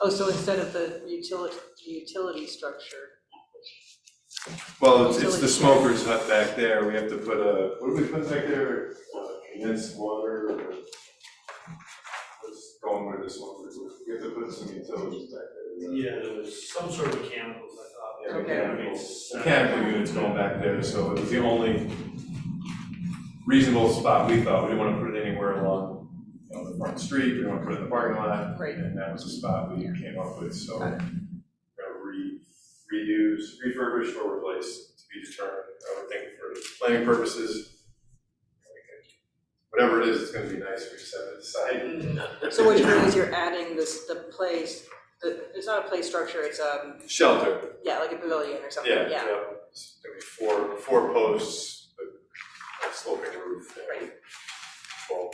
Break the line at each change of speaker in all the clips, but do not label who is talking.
Oh, so instead of the utility, utility structure,
Well, it's, it's the smoker's hut back there, we have to put a, what do we put back there? Uh, Condensed water, or- what's going with this one, we have to put some utilities back there.
Yeah, there was some sort of mechanicals, I
Yeah,
thought.
Okay.
mechanicals. Mechanical units going back there, so it was the only reasonable spot we thought, we didn't wanna put it anywhere along, you know, the front street, we didn't wanna put it in the parking lot,
right,
and that was the spot we came up with, so. we're gonna Re, reuse, refurbish or replace to be determined, I would think for planning purposes. we could- Whatever it is, it's gonna be nice, we just have to decide.
so what you're doing is you're adding this, the place, the, it's not a play structure, it's, um,
Shelter,
yeah, like a pavilion or something,
yeah,
yeah.
yeah, It's gonna be four, four posts, but a sloping roof. and
Right.
Twelve,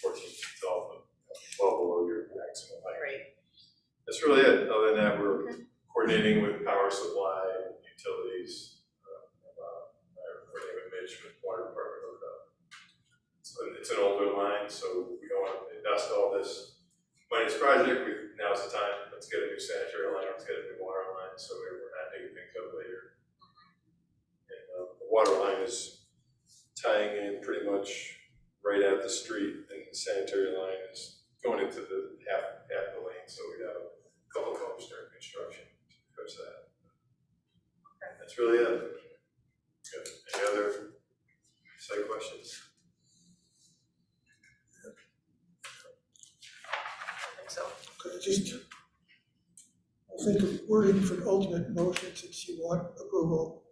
fourteen feet tall, but twelve below your maximum height.
Right.
That's really it, other than that, we're coordinating with power supply, utilities, uh, uh, coordinating with Mitch, with water department, hook up. So it's an older line, so we don't want to invest all this money in this project, we, now's the time, let's get a new sanitary line, let's get a new water line, so we're not digging things up later. And, uh, the water line is tying in pretty much right at the street, and the sanitary line is going into the half, half the lane, so we got a couple of homes during construction to fix that. That's really it. Good. Any other site questions?
So,
Just, I think if we're in for an ultimate motion since you want approval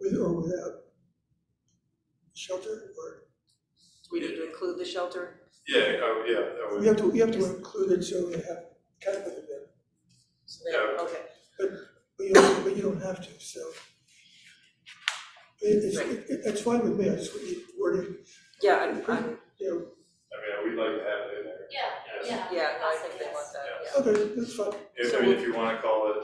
with or without shelter, or,
do we need to include the shelter?
Yeah, oh, yeah, that
we
would,
have to, we have to include it so we have kind of it in,
So they-
Yeah.
Okay,
but you don't, but you don't have to, so. It, it's, it, it- it's fine with me, I just would need wording,
yeah, I'm, I'm,
you
I mean, we'd like to have it in there.
Yeah,
Yes.
yeah.
yeah, no, I think they want that, yeah.
know, okay, that's fine,
If,
So
I mean,
we'll-
if you wanna call it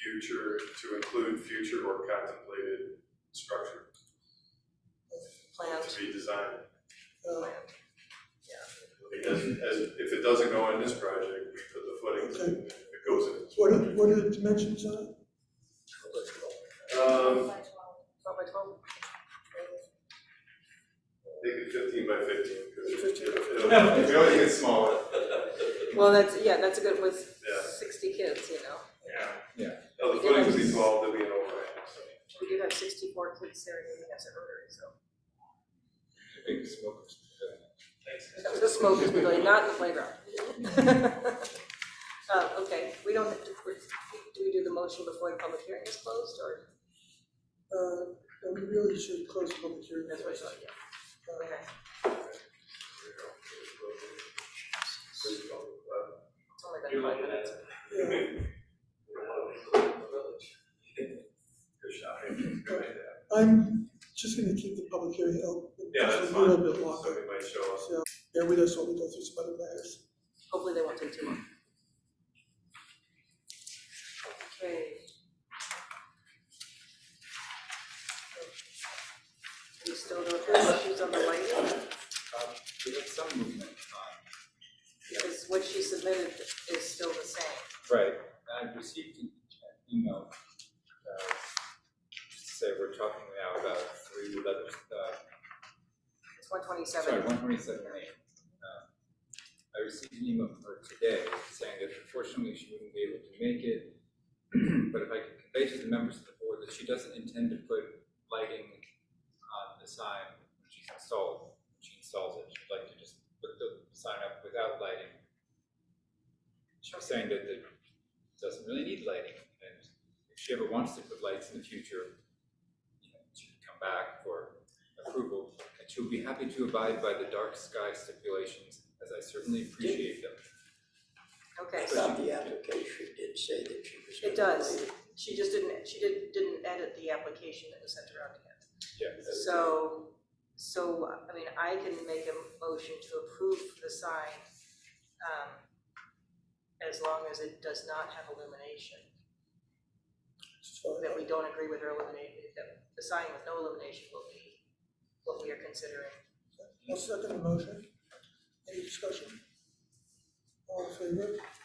future, to include future or contemplated structure
Planned,
to be designed.
uh,
Because as, if it doesn't go in this project, we put the footings in, if it goes in. this
what are,
project.
what are the dimensions on it?
twelve
Um,
by twelve?
They could fifteen by fifteen, because
Fifteen.
we always get smaller.
Well, that's, yeah, that's a good, with
Yeah.
sixty kids, you know,
Yeah. Oh, the footings would be twelve, there'd be an overhang, so.
we do have sixty-four kids there, and we have a rotary, so. The smokers pavilion, not in the playground. Uh, okay, we don't, have to- we're- do we do the motion before the public hearing is closed, or?
Uh, we really should close the public hearing.
That's what I thought, yeah. Okay. It's only been
You're
five
looking at
minutes.
Yeah.
Good shot. Good idea.
I'm just gonna keep the public hearing open
Yeah,
just
that's
a little
fine.
bit longer,
Somebody might show us.
so bear with us while we go through some other matters.
Hopefully they won't take too long. Okay. We still don't have issues on the lighting,
We had some movement on.
because what she submitted is still the same.
Right. And I received an email, uh, just to say we're talking now about three eleven, uh,
It's one
sorry,
twenty-seven.
one twenty-seven eight. I received an email from her today saying that unfortunately she wouldn't be able to make it. But if I could convey to the members of the board that she doesn't intend to put lighting on the sign when she's installed, when she installs it, she'd like to just put the sign up without lighting. She was saying that it doesn't really need lighting, and if she ever wants to put lights in the future, you know, she can come back for approval, and she will be happy to abide by the dark sky stipulations, as I certainly appreciate them.
Okay,
I
so
thought the application did say that she was.
it does. She just didn't, she did, didn't edit the application that was sent around to him.
Yeah.
So, so, I mean, I can make a motion to approve the sign, um, as long as it does not have illumination,
It's fine.
that we don't agree with her illumination, that the sign with no illumination will be what we are considering.
I'll second the motion. Any discussion? All in favor?